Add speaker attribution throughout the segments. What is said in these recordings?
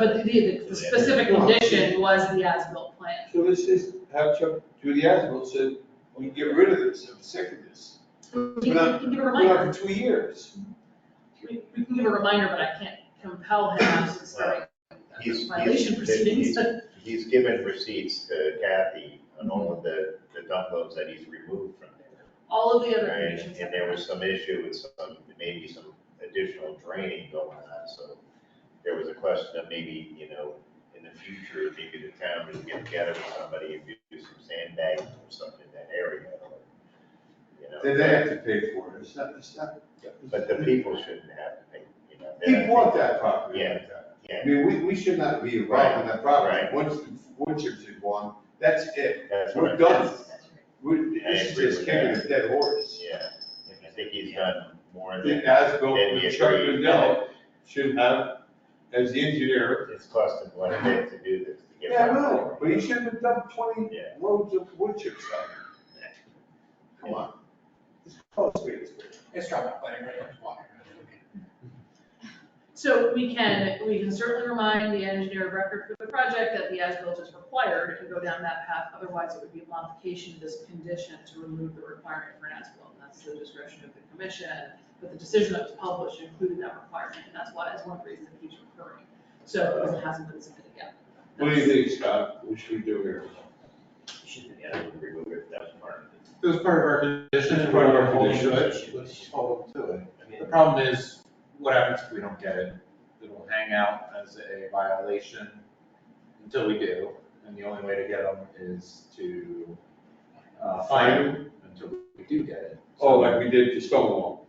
Speaker 1: But the, the specific condition was the as-built plan.
Speaker 2: So let's just have Chuck do the as-built, so we can get rid of this, I'm sick of this.
Speaker 1: We can we can give a
Speaker 2: We're
Speaker 1: reminder,
Speaker 2: not for two years.
Speaker 1: we we can give a reminder, but I can't compel him to start
Speaker 3: He's-
Speaker 1: violation
Speaker 3: he's-
Speaker 1: proceedings, but
Speaker 3: He's given receipts to Kathy on all of the, the dump loads that he's removed from there.
Speaker 1: all of the other
Speaker 3: Right,
Speaker 1: conditions.
Speaker 3: and there was some issue with some, maybe some additional draining going on, so there was a question of maybe, you know, in the future, maybe the town would get together with somebody and do some sandbagging or something in that area. or, You know,
Speaker 2: Then they have to pay for it, it's not, it's not.
Speaker 3: but the people shouldn't have to pay, you know. they're
Speaker 2: People
Speaker 3: not-
Speaker 2: want that property like that. I
Speaker 3: Yeah,
Speaker 2: mean, we, we should not be involved in that property.
Speaker 3: Right.
Speaker 2: Once the wood chips are gone, that's it.
Speaker 3: that's what
Speaker 2: We're
Speaker 3: I'm.
Speaker 2: done.
Speaker 1: That's right.
Speaker 2: We,
Speaker 3: I
Speaker 2: this is
Speaker 3: agree
Speaker 2: just
Speaker 3: with
Speaker 2: kicking
Speaker 3: that.
Speaker 2: a dead horse.
Speaker 3: Yeah, I think he's done more
Speaker 2: I
Speaker 3: than.
Speaker 2: think as-built,
Speaker 3: than
Speaker 2: with
Speaker 3: he
Speaker 2: Chuck
Speaker 3: agreed.
Speaker 2: Rendell should have, as the engineer.
Speaker 3: It's costing what it did to do this, to get.
Speaker 2: Yeah, I
Speaker 3: that
Speaker 2: know,
Speaker 3: going.
Speaker 2: but he shouldn't have dumped twenty
Speaker 3: Yeah.
Speaker 2: loads of wood chips out there. Come on. It's close, wait, it's wait.
Speaker 4: It's dropped off, but I read it, water.
Speaker 1: So we can, we can certainly remind the engineer of record for the project that the as-built is required and go down that path. Otherwise, it would be a modification to this condition to remove the requirement for an as-built. And that's the discretion of the commission. But the decision that was published included that requirement, and that's why, that's one reason it keeps recurring. So it hasn't been submitted yet.
Speaker 2: What do you think, Scott? What should we do here?
Speaker 3: Yeah, we remove it, that's part of
Speaker 5: It was part of our condition.
Speaker 2: It's part of our
Speaker 5: and we're
Speaker 2: condition,
Speaker 5: holding
Speaker 2: right?
Speaker 5: to it. Let's hold them to it. The
Speaker 3: it.
Speaker 5: problem is, what happens if we don't get it? It'll hang out as a violation until we do, and the only way to get them is to, uh, fine them until we do get it.
Speaker 2: Oh, like we did to Stonewall.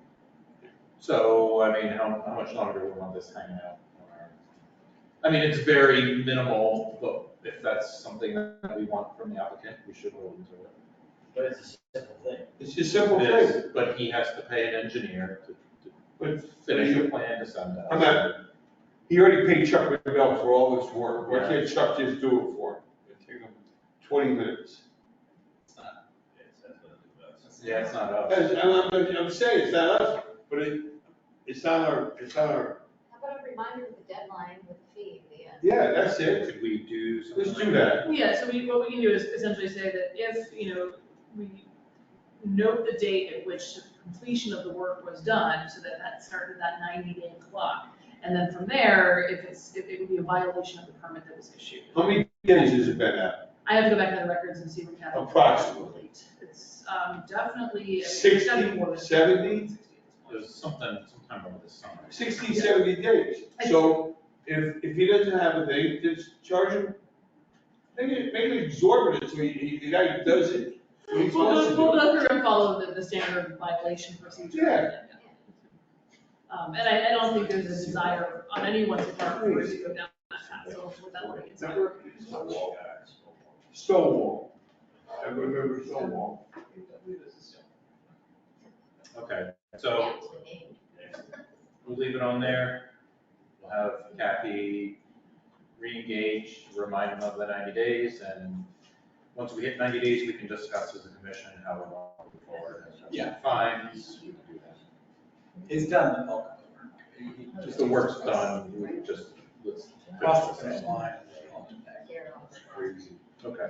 Speaker 5: So, I mean, how, how much longer do we want this hanging out? on our- I mean, it's very minimal, but if that's something that we want from the applicant, we should hold them to it.
Speaker 6: But it's a simple thing.
Speaker 2: It's just simple
Speaker 5: It is,
Speaker 2: thing.
Speaker 5: But he has to pay an engineer to, to
Speaker 2: But
Speaker 5: finish a plan to send out.
Speaker 2: I'm not- he already paid Chuck Rendell for all his work. Why
Speaker 5: Yeah.
Speaker 2: can't Chuck just do it for him? It'd take him twenty minutes.
Speaker 5: Yeah, it's not us.
Speaker 2: As- I'm, I'm, I'm saying, it's not us, but it, it's not our, it's not our,
Speaker 7: How about a reminder of the deadline with the fee at the end?
Speaker 2: yeah, that's it.
Speaker 5: Could we do something?
Speaker 2: Let's
Speaker 5: like
Speaker 2: do that.
Speaker 1: Yeah, so we, what we can do is essentially say that if, you know, we note the date at which the completion of the work was done, so that that started that ninety day clock. And then from there, if it's, if it would be a violation of the permit that was issued.
Speaker 2: How many days has it been out?
Speaker 1: I have to go back to the records and see what happened.
Speaker 2: Approximately.
Speaker 1: It's, um, definitely. I mean, it's definitely more
Speaker 2: Sixty,
Speaker 1: than-
Speaker 2: seventy?
Speaker 5: There's something, sometime over the summer.
Speaker 2: 60, 70 days. So if, if he doesn't have a thing, just charge him, make it, make it exorbitant, so he, he, the guy does it. when he's
Speaker 1: We'll
Speaker 2: supposed to
Speaker 1: go, we'll
Speaker 2: do it.
Speaker 1: go through and follow the, the standard violation procedure.
Speaker 2: Yeah.
Speaker 1: Um, and I, I don't think there's a desire on anyone's part for us to go down that path, so with that, like, it's not-
Speaker 2: Remember Stonewall? Stonewall. I remember Stonewall.
Speaker 5: Okay,
Speaker 7: Yeah,
Speaker 5: so
Speaker 7: it's been named.
Speaker 5: we'll leave it on there. We'll have Kathy re-engage, remind him of the ninety days, and once we hit ninety days, we can discuss as a commission how we want to move forward.
Speaker 4: Yeah.
Speaker 5: Fines, we can do that.
Speaker 4: It's done, the bulk of the work. He- he
Speaker 5: Just the work's done, we can just, let's.
Speaker 4: Cross the finish line. and then on to the next.
Speaker 7: Here, I'll just-
Speaker 5: Okay.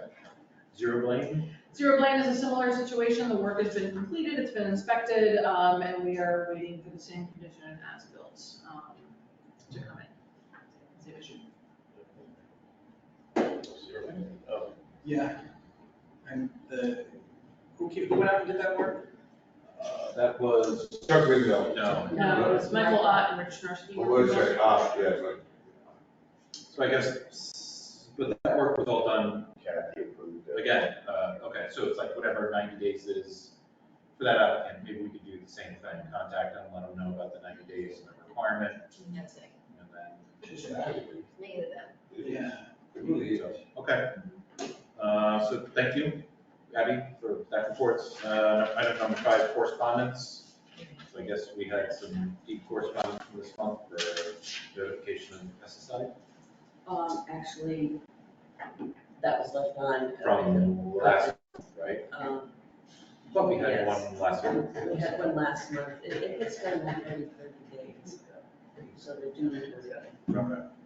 Speaker 5: Zero blame?
Speaker 1: Zero Blaine is a similar situation, the work has been completed, it's been inspected, um, and we are waiting for the same condition as built, um, to come in. Same issue.
Speaker 3: um,
Speaker 4: Yeah. And the, who came, who went out and did that work?
Speaker 5: Uh, That was,
Speaker 2: Chuck Wendell.
Speaker 5: no.
Speaker 1: No, it was Michael Ott and Rich Nursky.
Speaker 2: What was it? Ah, yeah, but.
Speaker 5: So I guess, but that work was all done,
Speaker 3: Kathy approved it.
Speaker 5: again, uh, okay, so it's like whatever ninety days is for that applicant, maybe we could do the same thing, contact them, let them know about the ninety days and the requirement,
Speaker 7: No, it's like,
Speaker 5: and then,
Speaker 4: Just that.
Speaker 7: Negative that.
Speaker 4: Yeah.
Speaker 2: It really is.
Speaker 5: okay. Uh, so thank you, Abby, for that report. Uh, item number five, correspondence. So I guess we had some deep correspondence from this month for notification of pesticide
Speaker 8: Um, actually, that was left on. uh,
Speaker 5: from last, right?
Speaker 8: Um,
Speaker 5: But we had
Speaker 8: Yes.
Speaker 5: one last month.
Speaker 8: we had one last month, it, it- it's been like maybe thirty days, so the due date was
Speaker 5: Okay.